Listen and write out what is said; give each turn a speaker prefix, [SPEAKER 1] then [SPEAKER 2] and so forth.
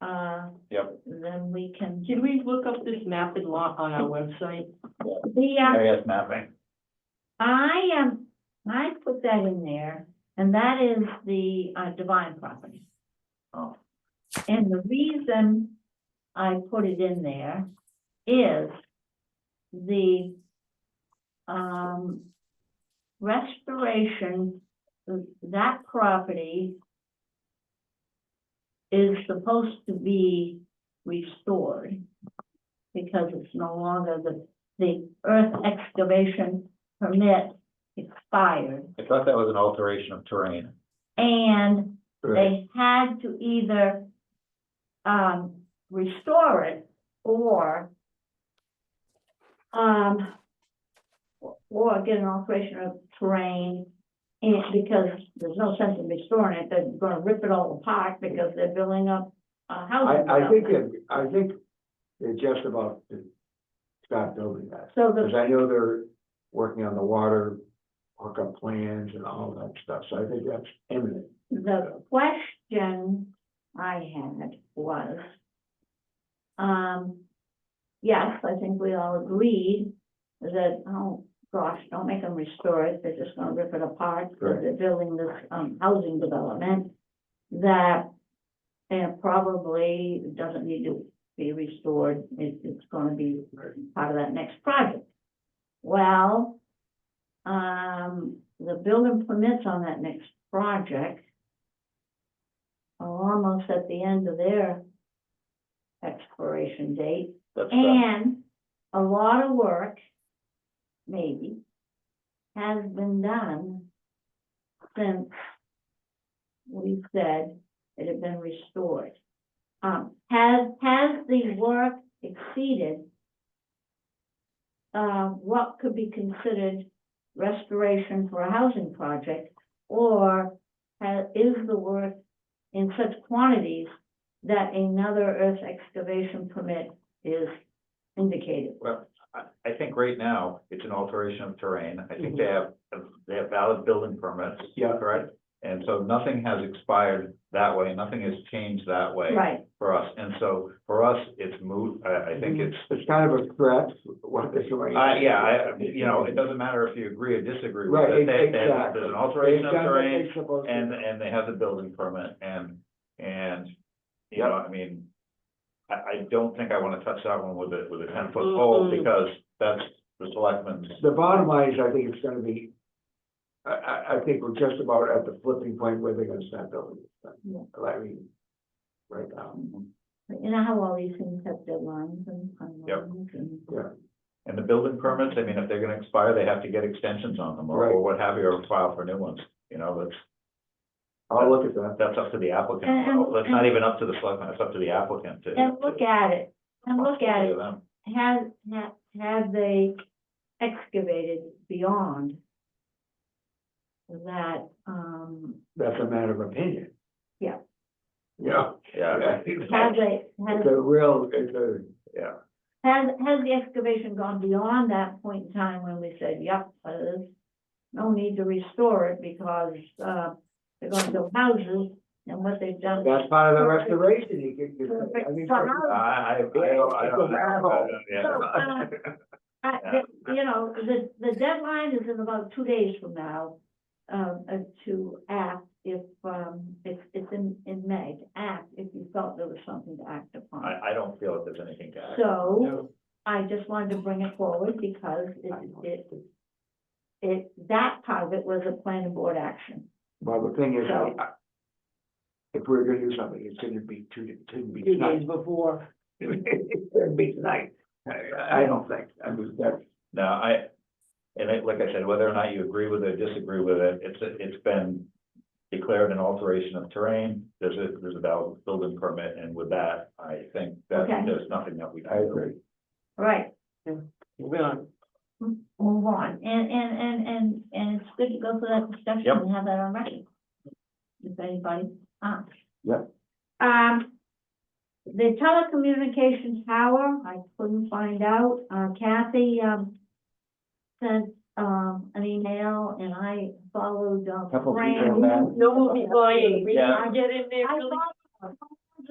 [SPEAKER 1] now.
[SPEAKER 2] Yep.
[SPEAKER 1] And then we can,
[SPEAKER 3] Can Uh, we look up this mapped lot on our website?
[SPEAKER 1] the, uh,
[SPEAKER 2] Area mapping.
[SPEAKER 1] I am, I put that in there, and that is the uh, Divine property.
[SPEAKER 2] Oh.
[SPEAKER 1] And the reason I put it in there is the um restoration, that property is supposed to be restored because it's no longer the, the earth excavation permit expired.
[SPEAKER 2] I thought that was an alteration of terrain.
[SPEAKER 1] And they had to either um, restore it or um, or get an alteration of terrain. And because there's no sense in restoring it, they're gonna rip it all apart because they're building up a house.
[SPEAKER 4] I, I think it, I think they're just about to stop building that,
[SPEAKER 1] So
[SPEAKER 4] because
[SPEAKER 1] the,
[SPEAKER 4] I know they're working on the water hookup plans and all that stuff, so I think that's imminent.
[SPEAKER 1] the question I had was, um, yes, I think we all agreed that, oh, gosh, don't make them restore it, they're just gonna rip it apart, because
[SPEAKER 4] Right.
[SPEAKER 1] they're building this, um, housing development that, and probably doesn't need to be restored, it, it's gonna be part of that next project. Well, um, the building permits on that next project are Oh, almost at the end of their expiration date,
[SPEAKER 2] That's, uh,
[SPEAKER 1] and a lot of work, maybe, has been done since we said it had been restored. Um, has, has the work exceeded uh, what could be considered restoration for a housing project? Or ha is the work in such quantities that another earth excavation permit is indicated?
[SPEAKER 2] well, I, I think right now, it's an alteration of terrain. I think they
[SPEAKER 1] Mhm.
[SPEAKER 2] have, they have valid building permits,
[SPEAKER 4] Yeah,
[SPEAKER 2] correct? And so nothing has expired that way, nothing has changed that way
[SPEAKER 1] Right,
[SPEAKER 2] for us. And so for us, it's moot. I, I
[SPEAKER 1] Mhm.
[SPEAKER 2] think it's,
[SPEAKER 4] it's kind of a threat, what this.
[SPEAKER 2] uh, yeah, I, I- you know, it doesn't matter if you agree or disagree with
[SPEAKER 4] Right,
[SPEAKER 2] it. They- they-
[SPEAKER 4] exactly.
[SPEAKER 2] There's an alteration of terrain.
[SPEAKER 4] They've done what they're
[SPEAKER 2] And,
[SPEAKER 4] supposed
[SPEAKER 2] and they have the building permit and, and, you know, I mean, I, I don't think I wanna touch that one with a, with a ten foot pole
[SPEAKER 3] Mm-mm.
[SPEAKER 2] because that's the selectmen's.
[SPEAKER 4] to. The bottom line is, I think it's gonna be, I, I, I think we're just about at the flipping point where they're gonna stop building. this
[SPEAKER 1] Yeah.
[SPEAKER 4] thing. I mean, right now.
[SPEAKER 1] But you know how all these things have deadlines and timelines and.
[SPEAKER 2] And the building permits, I mean, if they're gonna expire, they have to get extensions on them or, or
[SPEAKER 4] Right.
[SPEAKER 2] what have you, or file for new ones. You know, that's,
[SPEAKER 4] I'll look at that.
[SPEAKER 2] that's up to the applicant.
[SPEAKER 1] And-
[SPEAKER 2] Well, That's not even up to the selectmen, it's up to the applicant to.
[SPEAKER 1] And look at it, and look at it,
[SPEAKER 2] Them.
[SPEAKER 1] had, had, had they excavated beyond that, um,
[SPEAKER 4] That's a matter of opinion.
[SPEAKER 1] Yeah.
[SPEAKER 4] Yeah.
[SPEAKER 2] Yeah,
[SPEAKER 1] Has
[SPEAKER 4] It's
[SPEAKER 1] they, has,
[SPEAKER 4] a real, it's a,
[SPEAKER 1] has, has the excavation gone beyond that point in time when we said, yep, uh, there's no need to restore it because, uh, they're gonna build houses and what they've done.
[SPEAKER 4] that's part of the restoration, you can, you can- I mean,
[SPEAKER 1] So how-
[SPEAKER 2] I, I, I don't, I don't.
[SPEAKER 1] So,
[SPEAKER 2] Yeah.
[SPEAKER 1] uh, I- the- You know, the, the deadline is in about two days from now, um, uh, to act if, um, it's, it's in, in May, to act if you felt there was something to act upon.
[SPEAKER 2] I, I don't feel that there's anything to add.
[SPEAKER 1] So
[SPEAKER 4] no,
[SPEAKER 1] I just wanted to bring it forward because
[SPEAKER 4] I
[SPEAKER 1] it,
[SPEAKER 4] know.
[SPEAKER 1] it, it, that part of it was a planning board action.
[SPEAKER 4] Well, the thing is,
[SPEAKER 1] So-
[SPEAKER 4] I- if we're gonna do something, it's gonna be two, it couldn't be
[SPEAKER 3] Two days
[SPEAKER 4] tonight.
[SPEAKER 3] before.
[SPEAKER 4] It couldn't be tonight, I, I don't think, I mean, that's,
[SPEAKER 2] No, I, and it, like I said, whether or not you agree with it, disagree with it, it's, it's been declared an alteration of terrain, there's a, there's a valid building permit, and with that, I think that
[SPEAKER 1] Okay.
[SPEAKER 2] there's nothing that we. can
[SPEAKER 4] I agree.
[SPEAKER 1] All Right,
[SPEAKER 3] Moving on.
[SPEAKER 1] move on. And, and, and, and, and it's good to go through that discussion
[SPEAKER 2] Yep.
[SPEAKER 1] and have that on record. If anybody asks.
[SPEAKER 4] Yep.
[SPEAKER 1] Um, the telecommunications tower, I couldn't find out. Uh, Kathy, um, sent, um, an email and I followed, um,
[SPEAKER 4] Couple people
[SPEAKER 1] Fran.
[SPEAKER 4] back.
[SPEAKER 3] No, we'll be lying. We
[SPEAKER 2] Yeah.
[SPEAKER 3] can get in there
[SPEAKER 1] I
[SPEAKER 3] really.
[SPEAKER 1] followed-